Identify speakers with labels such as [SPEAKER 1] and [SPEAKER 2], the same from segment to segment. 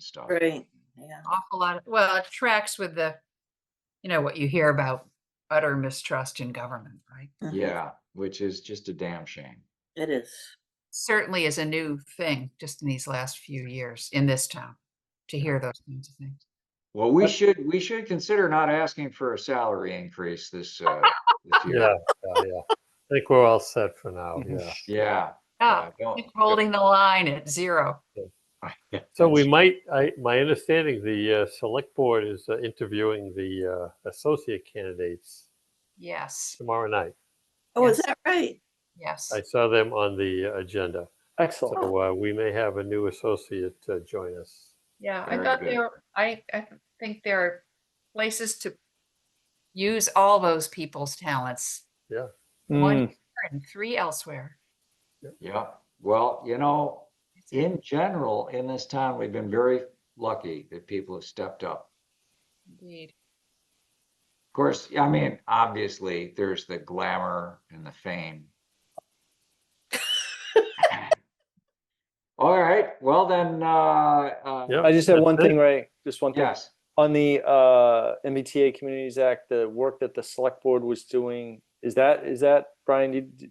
[SPEAKER 1] stuff.
[SPEAKER 2] Right, yeah.
[SPEAKER 3] awful lot, of- well, it tracks with the, you know, what you hear about utter mistrust in government, right?
[SPEAKER 2] mhm,
[SPEAKER 1] Yeah, which is just a damn shame.
[SPEAKER 2] It is.
[SPEAKER 3] Certainly is a new thing just in these last few years in this town to hear those kinds of things.
[SPEAKER 1] Well, we should, we should consider not asking for a salary increase this, uh, this year.
[SPEAKER 4] Yeah, yeah, yeah. I think we're all set for now, yeah.
[SPEAKER 1] Yeah.
[SPEAKER 3] Yeah,
[SPEAKER 1] yeah, don't-
[SPEAKER 3] Ah, keep holding the line at zero.
[SPEAKER 4] So we might, I, my understanding, the uh, select board is uh, interviewing the uh, associate candidates
[SPEAKER 3] Yes,
[SPEAKER 4] tomorrow night.
[SPEAKER 2] Oh, is
[SPEAKER 3] Yes.
[SPEAKER 2] that right?
[SPEAKER 3] yes.
[SPEAKER 4] I saw them on the uh, agenda.
[SPEAKER 2] Excellent.
[SPEAKER 4] So uh, we may have a new associate uh, join us.
[SPEAKER 3] Yeah, I
[SPEAKER 1] Very
[SPEAKER 3] thought
[SPEAKER 1] good.
[SPEAKER 3] there, I, I think there are places to use all those people's talents.
[SPEAKER 4] Yeah.
[SPEAKER 3] One here and three elsewhere.
[SPEAKER 1] Yeah, well, you know, in general, in this town, we've been very lucky that people have stepped up.
[SPEAKER 3] Indeed.
[SPEAKER 1] Of course, I mean, obviously, there's the glamour and the fame. All right, well then, uh, uh,
[SPEAKER 4] Yeah.
[SPEAKER 5] I just had
[SPEAKER 4] that's
[SPEAKER 5] one
[SPEAKER 4] it.
[SPEAKER 5] thing, Ray, just one thing.
[SPEAKER 1] yes,
[SPEAKER 5] On the uh, MBTA Communities Act, the work that the select board was doing, is that, is that, Brian, did,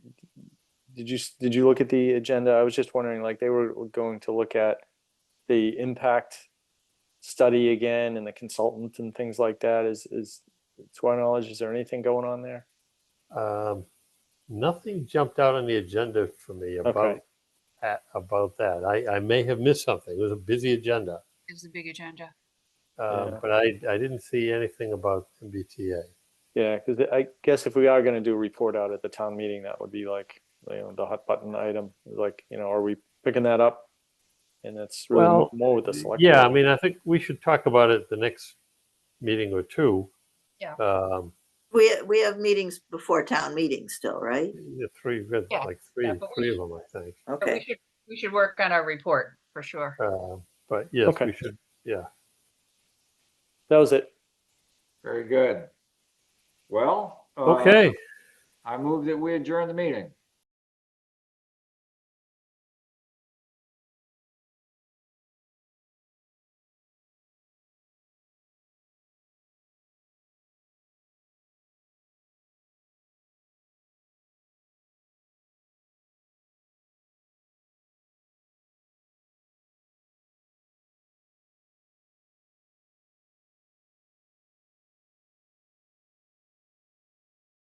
[SPEAKER 5] did you, s- did you look at the agenda? I was just wondering, like, they were going to look at the impact study again and the consultant and things like that. Is, is, to our knowledge, is there anything going on there?
[SPEAKER 4] Um, Nothing jumped out on the agenda for me about,
[SPEAKER 5] Okay.
[SPEAKER 4] at- about that. I, I may have missed something. It was a busy agenda.
[SPEAKER 3] Is the big agenda.
[SPEAKER 4] Um,
[SPEAKER 5] Yeah.
[SPEAKER 4] But I, I didn't see anything about MBTA.
[SPEAKER 5] Yeah, because I guess if we are going to do a report out at the town meeting, that would be like, you know, the hot button item, like, you know, are we picking that up? And that's really
[SPEAKER 4] Well,
[SPEAKER 5] mo- more with the select.
[SPEAKER 4] Yeah, I
[SPEAKER 5] board.
[SPEAKER 4] mean, I think we should talk about it the next meeting or two.
[SPEAKER 3] Yeah.
[SPEAKER 4] Um,
[SPEAKER 2] We, we have meetings before town meeting still, right?
[SPEAKER 4] the three, we've got
[SPEAKER 3] Yeah,
[SPEAKER 4] like three,
[SPEAKER 3] but
[SPEAKER 4] three of them, I think.
[SPEAKER 3] But we
[SPEAKER 2] Okay,
[SPEAKER 3] should, we should work on our report for sure.
[SPEAKER 4] Uh, But yes,
[SPEAKER 5] Okay.
[SPEAKER 4] we should, yeah.
[SPEAKER 5] That was it.
[SPEAKER 1] very good. uh, Well. uh,
[SPEAKER 4] Okay,
[SPEAKER 1] I move that we adjourn the meeting.